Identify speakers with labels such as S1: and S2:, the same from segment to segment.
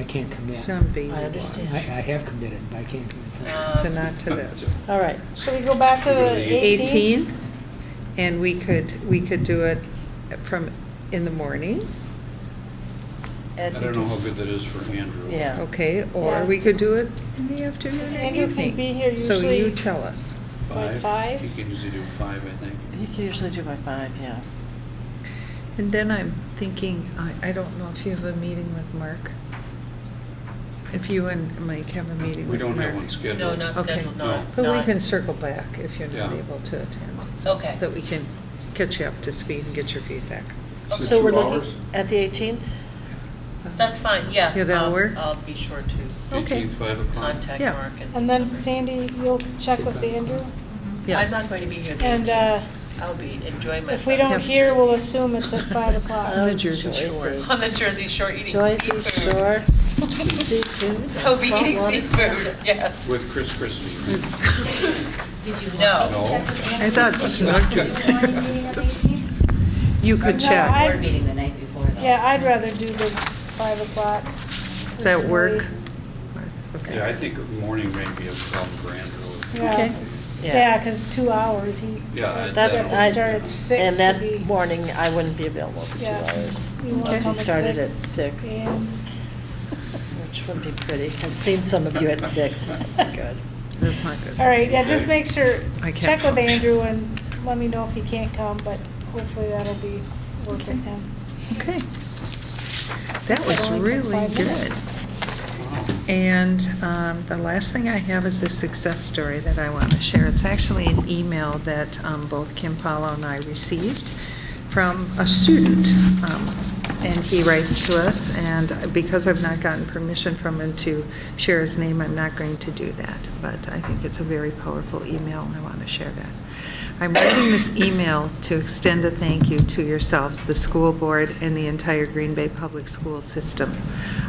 S1: I can't commit.
S2: something
S3: I
S1: I,
S3: understand.
S1: I have committed, but I can't commit tonight.
S2: to not to this.
S3: All right, shall we go back to the 18th?
S2: 18th, and we could, we could do it from, in the morning,
S4: I don't know how good that is for Andrew.
S3: Yeah.
S2: okay?
S3: Yeah.
S2: Or we could do it in the afternoon or
S5: Andrew can
S2: evening.
S5: be here
S2: So
S5: usually-
S2: you tell us.
S5: By
S4: Five?
S5: five?
S4: He can usually do five, I think.
S3: You can usually do by five, yeah.
S2: And then I'm thinking, I, I don't know if you have a meeting with Mark? If you and Mike have a meeting
S4: We
S2: with Mark?
S4: don't have one scheduled.
S6: No, not
S2: Okay.
S6: scheduled, not.
S2: But we
S6: not-
S2: can circle back if you're not
S4: Yeah.
S2: able to attend. so
S6: Okay.
S2: That we can catch you up to speed and get your feedback.
S4: So
S3: So we're
S4: two
S3: looking
S4: hours?
S3: at the 18th?
S6: That's fine, yeah.
S2: Yeah, that'll
S6: I'll-
S2: work.
S6: I'll be sure to
S2: Okay.
S4: Eighteenth, five o'clock.
S6: contact
S2: Yeah.
S6: Mark and.
S5: And then
S6: whoever.
S5: Sandy, you'll check with Andrew?
S6: I'm
S2: Yes.
S6: not going to be here the
S5: And
S6: 18th.
S5: uh,
S6: I'll be enjoying myself.
S5: if we Oh, don't
S2: Yep.
S5: hear, we'll assume it's at 5
S2: On
S5: o'clock.
S2: the Jersey
S3: Joyce
S2: Shore.
S3: is-
S6: On the Jersey Shore eating
S3: Joyce
S6: seafood.
S3: is Shore seafood.
S6: I'll be eating
S3: saltwater.
S6: seafood, yes.
S4: With Chris Christie.
S7: Did you want
S6: No.
S7: me to check with Andrew?
S2: I thought
S7: Did you want a meeting at the 18th?
S2: You could
S5: No,
S2: check.
S5: I-
S7: Board meeting the night before, though.
S5: Yeah, I'd rather do the 5 o'clock.
S2: Does that work? Okay.
S4: Yeah, I think morning may be a problem for Andrew.
S5: Yeah,
S2: Okay.
S5: yeah, because two hours, he,
S4: Yeah. I-
S3: That's-
S4: that'll-
S3: I-
S5: I start at 6
S3: And
S5: to
S3: that
S5: be.
S3: morning, I wouldn't be available for two
S5: Yeah.
S3: hours.
S5: You want
S3: Because
S5: home
S3: you
S5: at
S3: started at
S5: 6?
S3: six,
S5: Yeah.
S3: which would be pretty. I've seen some of you at six. Good.
S2: That's not good.
S5: All right, yeah, just make sure,
S2: I can't
S5: check with
S2: function.
S5: Andrew and let me know if he can't come, but hopefully that'll be working him.
S2: Okay. That
S5: It
S2: was
S5: only took
S2: really
S5: five
S2: good.
S5: minutes.
S2: And um, the last thing I have is a success story that I want to share. It's actually an email that um, both Kim Paulo and I received from a student. Um, And he writes to us, and because I've not gotten permission from him to share his name, I'm not going to do that. But I think it's a very powerful email, and I want to share that. I'm writing this email to extend a thank you to yourselves, the school board, and the entire Green Bay Public School system.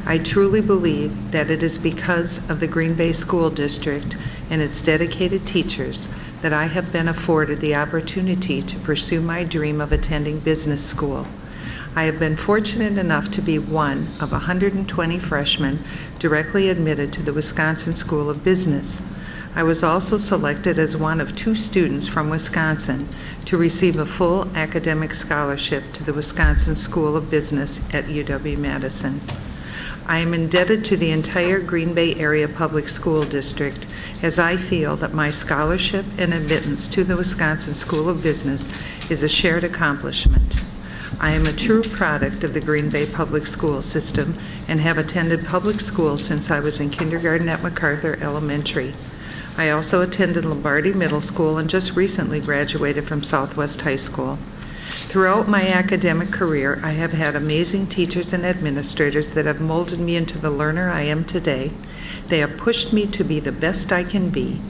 S2: I truly believe that it is because of the Green Bay School District and its dedicated teachers that I have been afforded the opportunity to pursue my dream of attending business school. I have been fortunate enough to be one of 120 freshmen directly admitted to the Wisconsin School of Business. I was also selected as one of two students from Wisconsin to receive a full academic scholarship to the Wisconsin School of Business at UW-Madison. I am indebted to the entire Green Bay Area Public School District as I feel that my scholarship and admittance to the Wisconsin School of Business is a shared accomplishment. I am a true product of the Green Bay Public School System and have attended public school since I was in kindergarten at MacArthur Elementary. I also attended Lombardi Middle School and just recently graduated from Southwest High School. Throughout my academic career, I have had amazing teachers and administrators that have molded me into the learner I am today. They have pushed me to be the best I can be.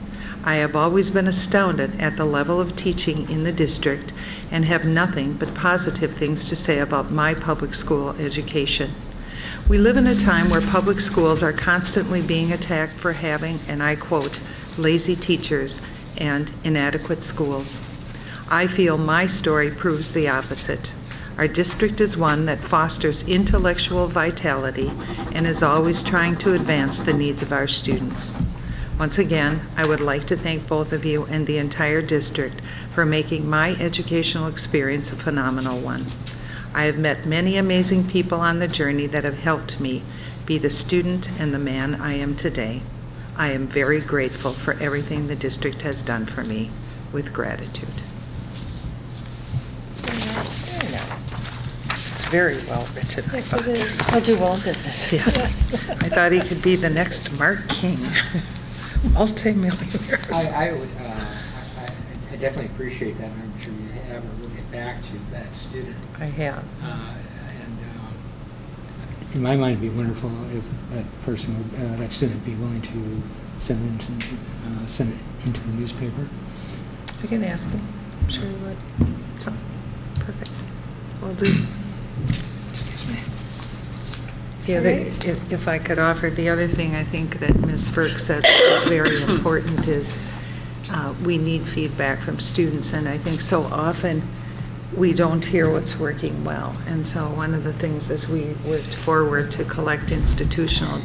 S2: I have always been astounded at the level of teaching in the district and have nothing but positive things to say about my public school education. We live in a time where public schools are constantly being attacked for having, and I quote, "lazy teachers" and inadequate schools. I feel my story proves the opposite. Our district is one that fosters intellectual vitality and is always trying to advance the needs of our students. Once again, I would like to thank both of you and the entire district for making my educational experience a phenomenal one. I have met many amazing people on the journey that have helped me be the student and the man I am today. I am very grateful for everything the district has done for me, with gratitude.
S3: Very
S5: né?
S3: nice.
S2: It's very well written, I
S5: Yes, it
S2: thought.
S5: is.
S3: I'll do well in business.
S2: Yes. I thought he could be the next Mark King, multimillionaire.
S1: I, I would, uh, I- I I definitely appreciate that, and I'm sure you have, and we'll get back to that student.
S2: I have.
S1: Uh, And um, in my mind, it'd be wonderful if that person, would- uh, that student be willing to send it into, uh, send it into the newspaper.
S2: I can ask him. I'm sure he would. So, perfect. Will do.
S1: Excuse me.
S2: The other, if if I could offer, the other thing I think that Ms. Ferk said that is very important is uh, we need feedback from students, and I think so often we don't hear what's working well. And so one of the things is we worked forward to collect institutional